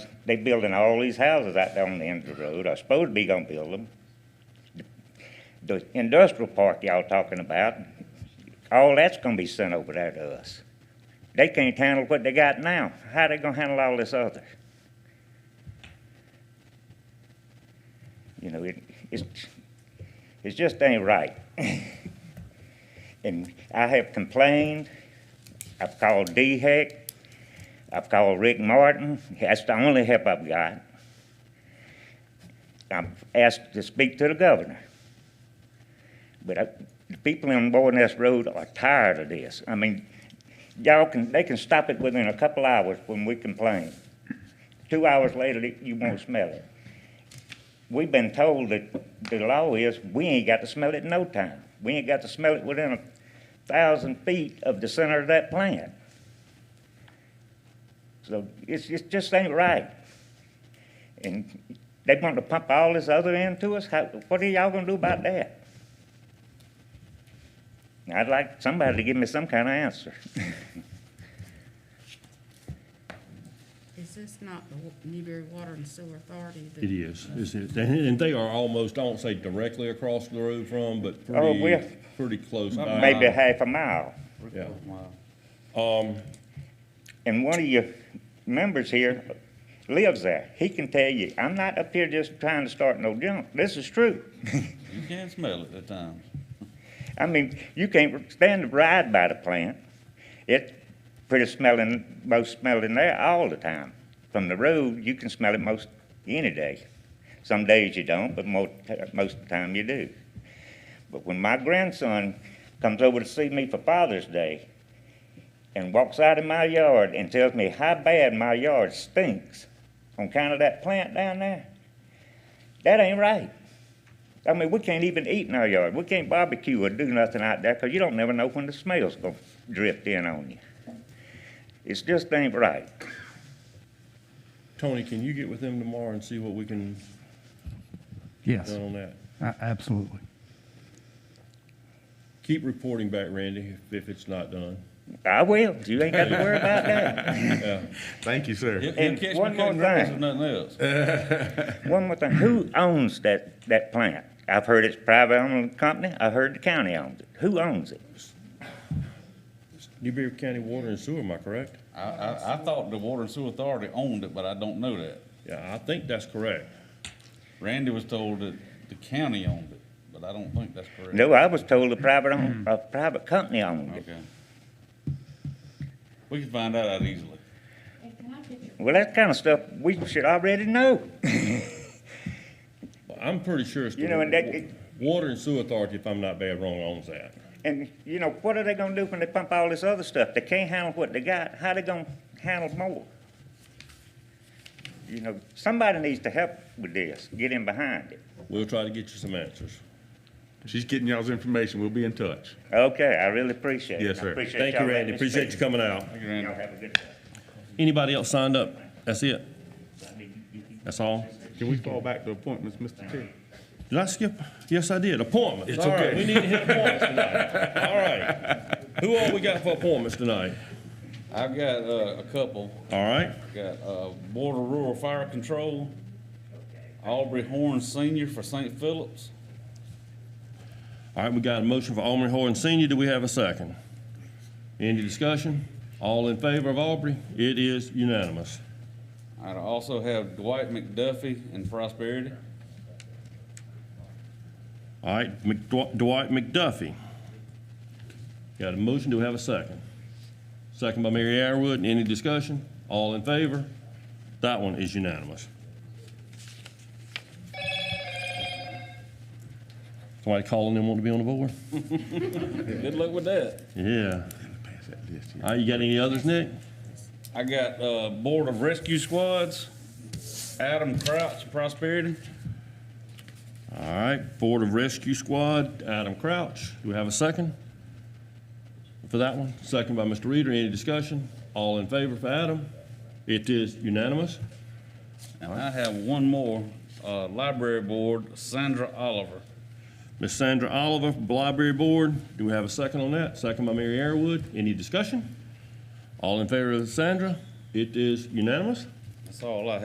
They building all these houses out there on the end of the road, I suppose to be gonna build them. The industrial park y'all talking about, all that's gonna be sent over there to us. They can't handle what they got now. How they gonna handle all this other? You know, it, it's, it just ain't right. And I have complained, I've called DHEC, I've called Rick Martin, that's the only help I've got. I'm asked to speak to the governor. But I, the people on Boyness Road are tired of this. I mean, y'all can, they can stop it within a couple hours when we complain. Two hours later, you won't smell it. We've been told that the law is, we ain't got to smell it in no time. We ain't got to smell it within a thousand feet of the center of that plant. So it's, it just ain't right. And they want to pump all this other into us? How, what are y'all gonna do about that? And I'd like somebody to give me some kind of answer. Is this not the Wa- Newberry Water and Sewer Authority? that- It is, it's, it- and they are almost, I won't say directly across the road from, but Oh, we're- pretty, pretty close by. Maybe half a mile. Yeah. And one of your members here lives there. He can tell you, I'm not up here just trying to start no junk. This is true. You can smell it at times. I mean, you can't stand to ride by the plant. It's pretty smelling, most smelling there all the time. From the road, you can smell it most any day. Some days you don't, but most, most of the time you do. But when my grandson comes over to see me for Father's Day and walks out in my yard and tells me how bad my yard stinks on account of that plant down there, that ain't right. I mean, we can't even eat in our yard. We can't barbecue or do nothing out there because you don't never know when the smell's going to drift in on you. It's just ain't right. Tony, can you get with them tomorrow and see what we can Yes, do on that? a- absolutely. Keep reporting back, Randy, if- if it's not done. I will. Ah, You ain't got to worry about that. Thank you, sir. He'll, And he'll catch me one more cutting grass thing. if nothing else. One more thing. Who owns that, that plant? I've heard it's private owned company. I heard the county owns it. Who owns it? Newberry County Water and Sewer, am I correct? I, I, I thought the Water and Sewer Authority owned it, but I don't know that. Yeah, I think that's correct. Randy was told that the county owned it, but I don't think that's correct. No, I was told a private own, a private company owned it. Okay. We can find that out easily. Well, that kind of stuff we should already know. But I'm pretty sure it's the You know, and that- Water and Sewer Authority, if I'm not bad wrong, owns that. And, you know, what are they gonna do when they pump all this other stuff? They can't handle what they got, how they gonna handle more? You know, somebody needs to help with this, get in behind it. We'll try to get you some answers. She's getting y'all's information. We'll be in touch. Okay, I really appreciate it. Yes, I sir. appreciate Thank you, y'all letting Randy, me appreciate you speak. coming out. Thank you, Randy. Y'all have a good day. Anybody else signed up? That's it? That's all? Can we fall back to appointments, Mr. Chair? Did I skip? Yes, I did. Appointments. It's All right, okay. We need to hit appointments tonight. All right. Who all we got for appointments tonight? I've got, uh, a couple. All right. Got, uh, Board of Rural Fire Control, Aubrey Horn Senior for St. Phillips. All right, we got a motion for Aubrey Horn Senior. Do we have a second? Any discussion? All in favor of Aubrey? It is unanimous. I also have Dwight McDuffie in Prosperity. All right, McDw- Dwight McDuffie. Got a motion. Do we have a second? Second by Mary Arrowood. Any discussion? All in favor? That one is unanimous. Somebody calling them want to be on the board? Good luck with that. Yeah. Pass that list, yeah. All right, you got any others, Nick? I got, uh, Board of Rescue Squads, Adam Crouch, Prosperity. All right, Board of Rescue Squad, Adam Crouch. Do we have a second for that one? Second by Mr. Reader. Any discussion? All in favor for Adam? It is unanimous. And I have one more, uh, Library Board, Sandra Oliver. Miss Sandra Oliver, Library Board. Do we have a second on that? Second by Mary Arrowood. Any discussion? All in favor of Sandra? It is unanimous. That's all I have.